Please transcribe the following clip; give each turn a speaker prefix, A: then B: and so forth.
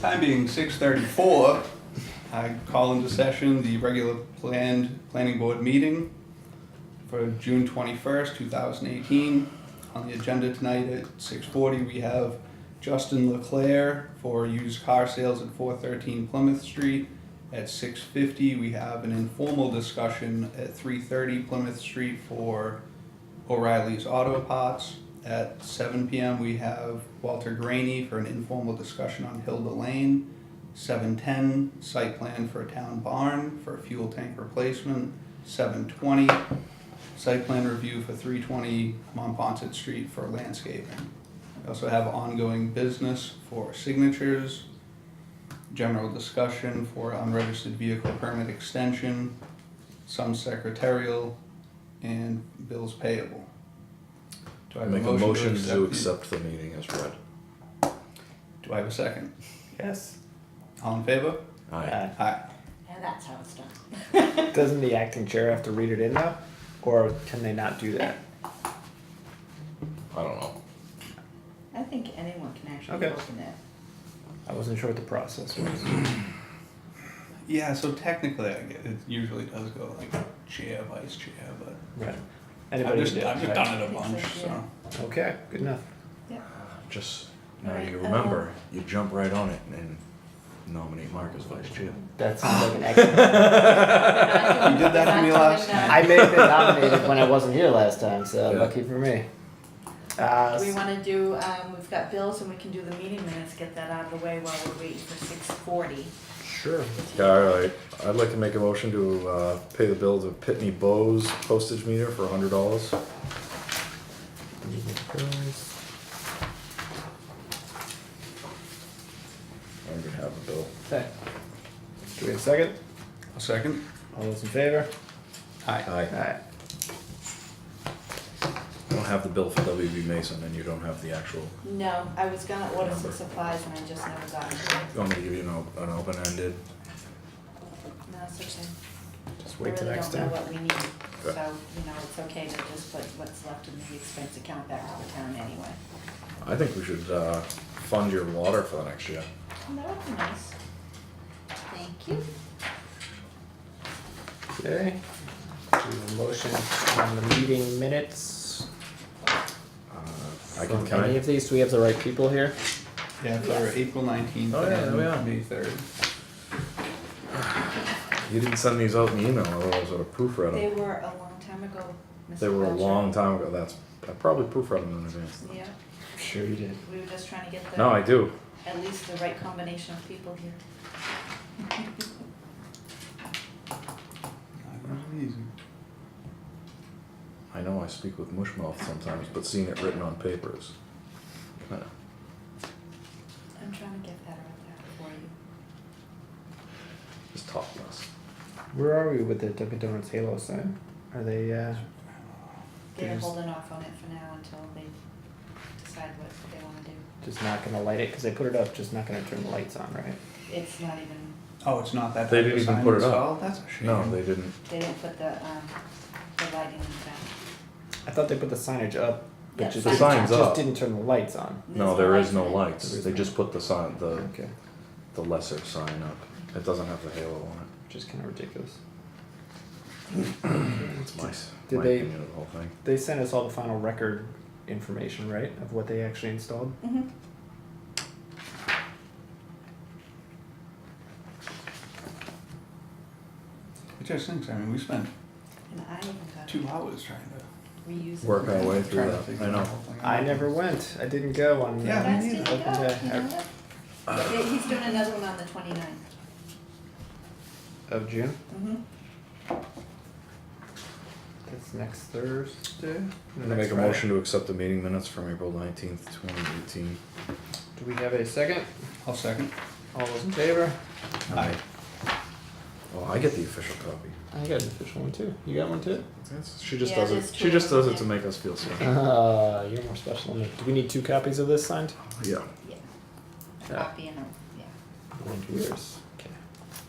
A: time being six thirty-four, I call into session the regular planned planning board meeting for June twenty-first, two thousand eighteen. On the agenda tonight at six forty, we have Justin Leclaire for used car sales at four thirteen Plymouth Street. At six fifty, we have an informal discussion at three thirty Plymouth Street for O'Reilly's Auto Pots. At seven PM, we have Walter Graney for an informal discussion on Hilda Lane. Seven ten, site plan for a town barn for a fuel tank replacement. Seven twenty, site plan review for three twenty Monpont Street for landscaping. We also have ongoing business for signatures. General discussion for unregistered vehicle permit extension, some secretarial, and bills payable. Do I have
B: Make a motion to
A: the-
B: accept the meeting as read.
A: Do I have a second?
C: Yes.
A: All in favor?
B: Aye.
C: Uh,
A: Aye.
D: And that's how it's done.
C: Doesn't the acting chair have to read it in though? Or can they not do that?
B: I don't know.
D: I think anyone can actually
C: Okay.
D: open that.
C: I wasn't sure what the process was.
A: Yeah, so technically, I get it usually does go like chair, vice chair, but
C: Right.
A: I've
C: Anybody
A: just,
C: can do it,
A: I've just
C: right?
A: done it a bunch, so.
C: Okay, good enough.
B: Just now
D: Alright,
B: you
D: uh,
B: remember, you jump right on it and nominate Mark as vice chair.
E: That
C: Ah.
E: sounds like an excellent.
A: You did that to me last
E: I may have been nominated when I wasn't here last time, so
B: Yeah.
E: lucky for me.
C: Uh,
D: Do we wanna do, um, we've got bills and we can do the meeting minutes, get that out of the way while we're waiting for six forty.
C: sure.
B: Yeah, all right. I'd like to make a motion to uh, pay the bill to Pitney Bowes postage meter for hundred dollars. I'm gonna have a bill.
C: Okay. Do we have a second?
A: A second?
C: All those in favor?
A: Aye.
B: Aye.
C: Alright.
B: I don't have the bill for WB Mason and you don't have the actual.
D: No, I was gonna order some supplies and I just never got it.
B: You want me to give you an, op- an open ended?
D: No, it's okay.
C: Just
D: We
C: wait till
D: really
C: next
D: don't know
C: time.
D: what we need, so,
B: Okay.
D: you know, it's okay to just put what's left in the expense account back to the town anyway.
B: I think we should uh, fund your water for the next year.
D: And that would be nice. Thank you.
C: Okay. Do we have a motion on the meeting minutes?
B: Uh, I can,
C: from
B: can
C: Any
B: I,
C: of these? Do we have the right people here?
A: Yeah, for
D: Yes.
A: April nineteenth
B: Oh, yeah, there we are.
A: and May third.
B: you didn't send these out in email, otherwise I would have proofread
D: They
B: them.
D: were a long time ago, Mr.
B: They were a
D: Belcher.
B: long time ago, that's, I probably proofread them in advance.
D: Yeah,
C: Sure you did.
D: we were just trying to get the.
B: No, I do.
D: at least the right combination of people here.
B: I know I speak with mush mouth sometimes, but seeing it written on paper is kind of,
D: I'm trying to get better at that for you.
B: is topless.
C: Where are we with the Dunkin' Donuts Halo sign? Are they uh
D: They're
C: There's-
D: holding off on it for now until they decide what they wanna do.
C: just not gonna light it? Cause they put it up, just not gonna turn the lights on, right?
D: It's not even,
A: Oh, it's not that.
B: They
A: type of
B: didn't even
A: sign
B: put it up.
A: installed? That's a shame.
B: No, they didn't.
D: they didn't put the, um, the lighting in the
C: I thought they put the signage up,
D: Yeah,
C: but just,
D: The
C: just,
B: sign's up.
C: didn't turn the lights on.
B: No, there is no
D: light.
B: lights. They just put the sign, the,
C: Okay,
B: the lesser sign up. It doesn't have the halo on
C: just kind of ridiculous.
B: it. It's my, s-
C: Did
B: my
C: they-
B: opinion of the whole thing.
C: They sent us all the final record information, right, of what they actually installed.
D: Mm-hmm,
A: It just stinks, I mean, we spent
D: and I even got
A: two hours trying to.
D: reused.
B: Work our way through
A: trying to
B: that,
A: figure
B: I
A: the
B: know.
A: whole thing
C: I
A: out.
C: never went. I didn't go on. uh,
A: Yeah,
D: Guys
A: me
D: didn't
A: neither.
D: go, you
C: Yeah.
D: know that? Yeah, He's doing another one on the twenty-ninth.
C: uh, of June.
D: Mm-hmm.
C: That's next Thursday.
B: I'm gonna make a motion to accept the meeting minutes from April nineteenth, twenty eighteen.
C: Do we have a second?
A: I'll second.
C: All those in favor?
A: Aye.
B: Oh, I get the official copy.
C: I got an official one too. You got one too?
B: That's- She just
D: Yeah,
B: does
D: there's
B: it,
D: two
B: she just
D: of them,
B: does it to
D: yeah.
B: make us feel special.
C: Uh, you're more special than me. Do we need two copies of this signed?
B: Yeah.
D: Yeah. A
C: Yeah.
D: copy and a, yeah.
C: One, two, yours.